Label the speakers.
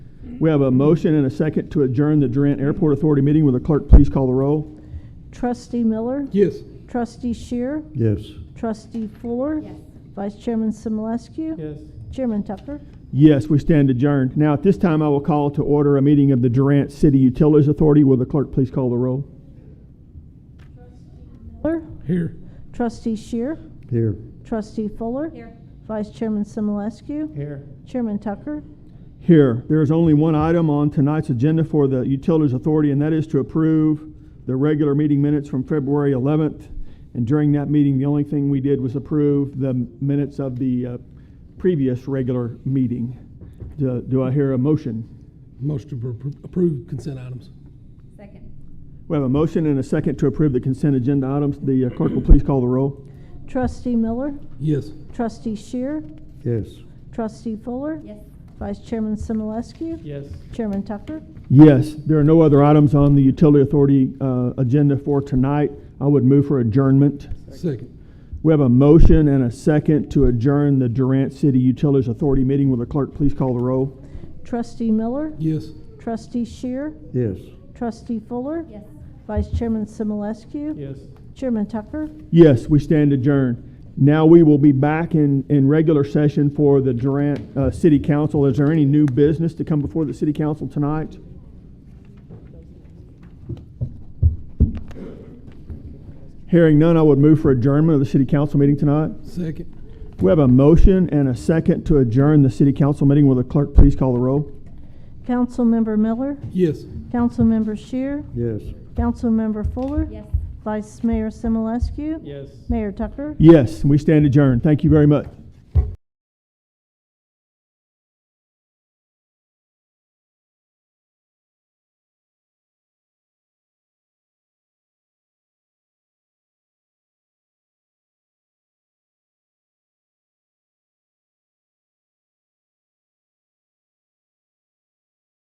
Speaker 1: We have a motion and a second to adjourn the Durant Airport Authority meeting. Will the clerk please call the roll?
Speaker 2: Trustee Miller?
Speaker 3: Yes.
Speaker 2: Trustee Shear?
Speaker 4: Yes.
Speaker 2: Trustee Fuller? Vice Chairman Simulescu?
Speaker 3: Yes.
Speaker 2: Chairman Tucker?
Speaker 1: Yes, we stand adjourned. Now, at this time, I will call to order a meeting of the Durant City Utilities Authority. Will the clerk please call the roll?
Speaker 2: Miller?
Speaker 3: Here.
Speaker 2: Trustee Shear?
Speaker 4: Here.
Speaker 2: Trustee Fuller? Vice Chairman Simulescu?
Speaker 3: Here.
Speaker 2: Chairman Tucker?
Speaker 1: Here, there is only one item on tonight's agenda for the Utilities Authority, and that is to approve the regular meeting minutes from February 11th. And during that meeting, the only thing we did was approve the minutes of the uh, previous regular meeting. Do do I hear a motion?
Speaker 3: Motion to appro- approve consent items.
Speaker 5: Second.
Speaker 1: We have a motion and a second to approve the consent agenda items. The uh, clerk will please call the roll.
Speaker 2: Trustee Miller?
Speaker 3: Yes.
Speaker 2: Trustee Shear?
Speaker 4: Yes.
Speaker 2: Trustee Fuller?
Speaker 5: Yes.
Speaker 2: Vice Chairman Simulescu?
Speaker 3: Yes.
Speaker 2: Chairman Tucker?
Speaker 1: Yes, there are no other items on the Utility Authority uh, agenda for tonight. I would move for adjournment.
Speaker 3: Second.
Speaker 1: We have a motion and a second to adjourn the Durant City Utilities Authority meeting. Will the clerk please call the roll?
Speaker 2: Trustee Miller?
Speaker 3: Yes.
Speaker 2: Trustee Shear?
Speaker 4: Yes.
Speaker 2: Trustee Fuller?
Speaker 5: Yes.
Speaker 2: Vice Chairman Simulescu?
Speaker 3: Yes.
Speaker 2: Chairman Tucker?
Speaker 1: Yes, we stand adjourned. Now we will be back in, in regular session for the Durant uh, City Council. Is there any new business to come before the City Council tonight? Hearing none, I would move for adjournment of the City Council meeting tonight.
Speaker 3: Second.
Speaker 1: We have a motion and a second to adjourn the City Council meeting. Will the clerk please call the roll?
Speaker 2: Councilmember Miller?
Speaker 3: Yes.
Speaker 2: Councilmember Shear?
Speaker 4: Yes.
Speaker 2: Councilmember Fuller?
Speaker 5: Yes.
Speaker 2: Vice Mayor Simulescu?
Speaker 3: Yes.
Speaker 2: Mayor Tucker?
Speaker 1: Yes, we stand adjourned. Thank you very much.